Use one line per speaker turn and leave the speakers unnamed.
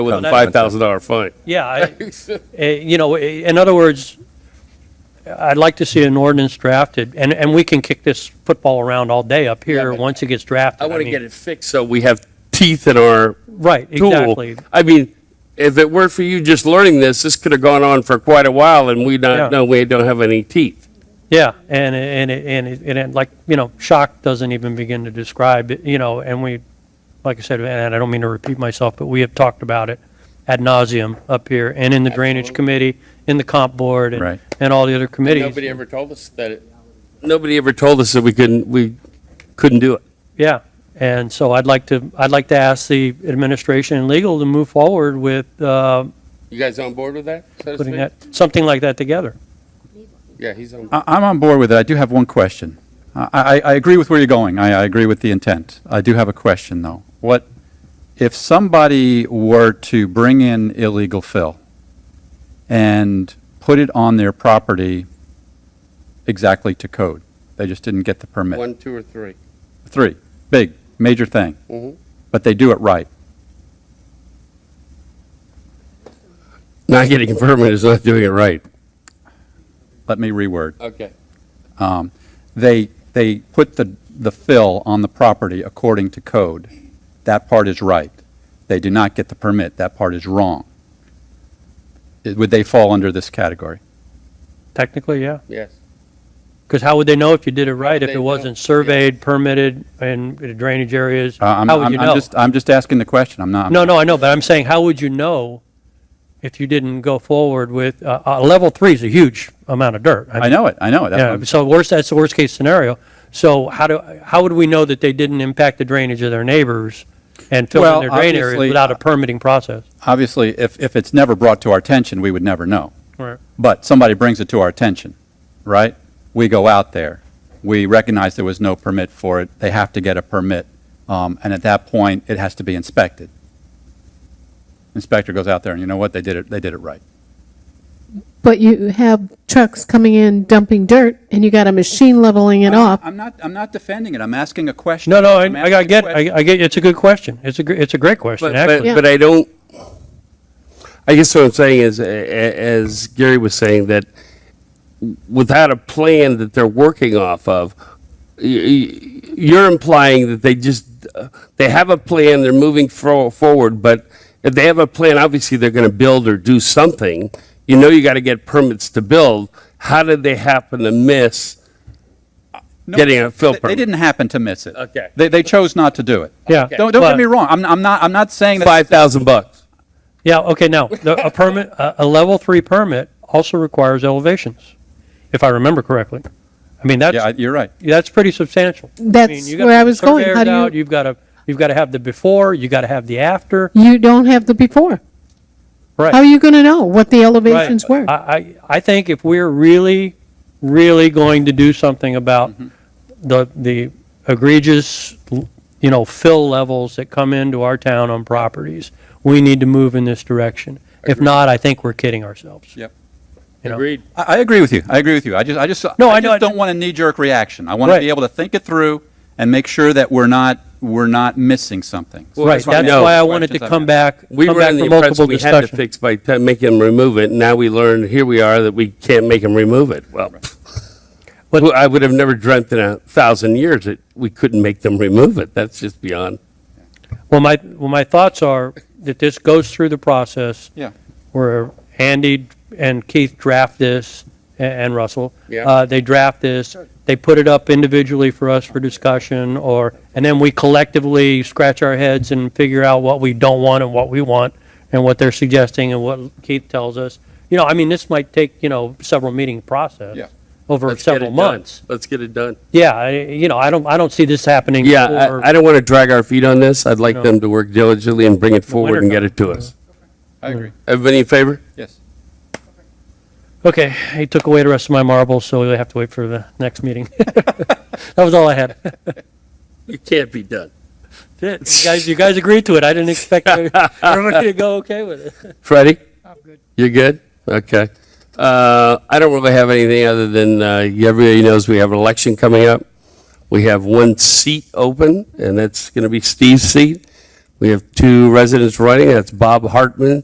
with
a
an-
five thousand dollar fine.
Yeah, I- eh, you know, eh, in other words, I'd like to see an ordinance drafted, and, and we can kick this football around all day up here,
but
once it gets drafted.
I want to
mean,
get it fixed so we have teeth in our
Right,
tool.
exactly.
I mean, if it weren't for you just learning this, this could have gone on for quite a while and we
Yeah.
not, know we don't have any teeth.
Yeah, and, and, it- and, it- and it, like, you know, shock doesn't even begin to describe, it, you know, and we, like I said, and I don't mean to repeat myself, but we have talked about it ad nauseum up here, and in the drainage committee, in the comp board, and,
Right.
and all the other committees.
ever told us that it. Nobody ever told us that we couldn't, we couldn't do it.
Yeah, and so I'd like to, I'd like to ask the administration and legal to move forward with uh,
You guys on board with that?
putting that, something like that together.
Yeah, he's on.
I- I'm on board with it. I do have one question. I, I, I agree with where you're going. I, I agree with the intent. I do have a question, though. What, if somebody were to bring in illegal fill and put it on their property exactly to code? They just didn't get the permit.
two, or three. Mm-hmm.
Three, big, major thing. But they do it right.
Not getting a permit is not doing it right.
Let me reword.
Okay.
Um, They, they put the, the fill on the property according to code. That part is right. They do not get the permit. That part is wrong. It- Would they fall under this category?
Technically, yeah,
Yes.
because how would they know if you did it right, if
They
it
don't-
wasn't surveyed, permitted, and the drainage areas?
Uh, I'm-
How would
I'm-
you
I'm
know?
just- I'm just asking the question. I'm not.
No, no, I know, but I'm saying, how would you know if you didn't go forward with, uh, uh, level three is a huge amount of dirt.
I know it. I know it. That's what
Yeah,
I'm-
so worst, that's the worst case scenario. So how do, how would we know that they didn't impact the drainage of their neighbors and fill in
Well,
their drain areas
obviously- uh,
without a permitting process?
Obviously, if, if it's never brought to our attention, we would never know.
Right.
But somebody brings it to our attention, right? We go out there. We recognize there was no permit for it. They have to get a permit. Um, and at that point, it has to be inspected. Inspector goes out there and you know what? They did it, they did it right.
But you have trucks coming in dumping dirt, and you got a machine leveling it off.
I'm not, I'm not defending it. I'm asking a question.
No, no,
I'm
I, I
asking a
got- get,
question.
I, I get, it's a good question. It's a, gr- it's a great question,
But, but,
actually.
Yeah.
but I don't, I guess what I'm saying is, a- a- as Gary was saying, that without a plan that they're working off of, y- y- you're implying that they just, uh, they have a plan, they're moving fro- forward, but if they have a plan, obviously they're going to build or do something. You know you got to get permits to build. How did they happen to miss
No,
getting a fill
they-
permit?
They didn't happen to miss it.
Okay.
They, they chose not to do it.
Yeah.
Don't, don't
But-
get me wrong. I'm, I'm not, I'm not saying that.
5,000 bucks.
Yeah, okay, now, the- a permit, a, a level three permit also requires elevations, if I remember correctly. I mean,
Yeah, I-
that's,
you're right.
that's pretty substantial.
That's
mean, you gotta
where I
put the
was going.
surveyor
How do you-
out, You've got to, you've got to have the before, you got to have the after,
You don't have the before.
right?
How are you going to know what the
Right.
elevations were?
I, I, I think if we're really, really going to do something about
Mm-hmm.
the, the egregious, you know, fill levels that come into our town on properties, we need to move in this direction. If not, I think we're kidding ourselves.
Yep.
you know?
I, I agree with you. I agree with you. I just, I just,
No, I know,
just
I-
don't want a knee-jerk reaction. I want to
Right.
be able to think it through and make sure that we're not, we're not missing something.
Well,
Right,
that's why-
that's
No.
why I wanted to
Questions I've
come
got.
back,
We
come
were
back
in the
for
impression
multiple
we had to
discussions.
fix by t- making them remove it. Now we learned, here we are, that we can't make them remove it. Well,
But-
well, I would have never dreamt in a thousand years that we couldn't make them remove it. That's just beyond.
Well, my, well, my thoughts are that this goes through the process.
Yeah.
where Andy and Keith draft this, a- and Russell.
Yeah.
Uh, They draft this, they put it up individually for us for discussion, or, and then we collectively scratch our heads and figure out what we don't want and what we want, and what they're suggesting and what Keith tells us. You know, I mean, this might take, you know, several meeting process.
Yeah.
Over
Let's get
several
it done.
months.
Let's get it done.
Yeah, I- you know, I don't, I don't see this happening.
Yeah,
before-
I, I don't want to drag our feet on this. I'd like
No.
them to work diligently and bring it forward
winter
and get it to us.
I agree.
Everybody in favor?
Yes.
Okay, he took away the rest of my marbles, so we have to wait for the next meeting. That was all I had.
You can't be done.
That's it. You guys, you guys agreed to it. I didn't expect everybody to go okay with it.
Freddie? I'm good. You're good? Okay. Uh, I don't really have anything other than, uh, everybody knows we have an election coming up. We have one seat open, and that's going to be Steve's seat. We have two residents running, that's Bob Hartman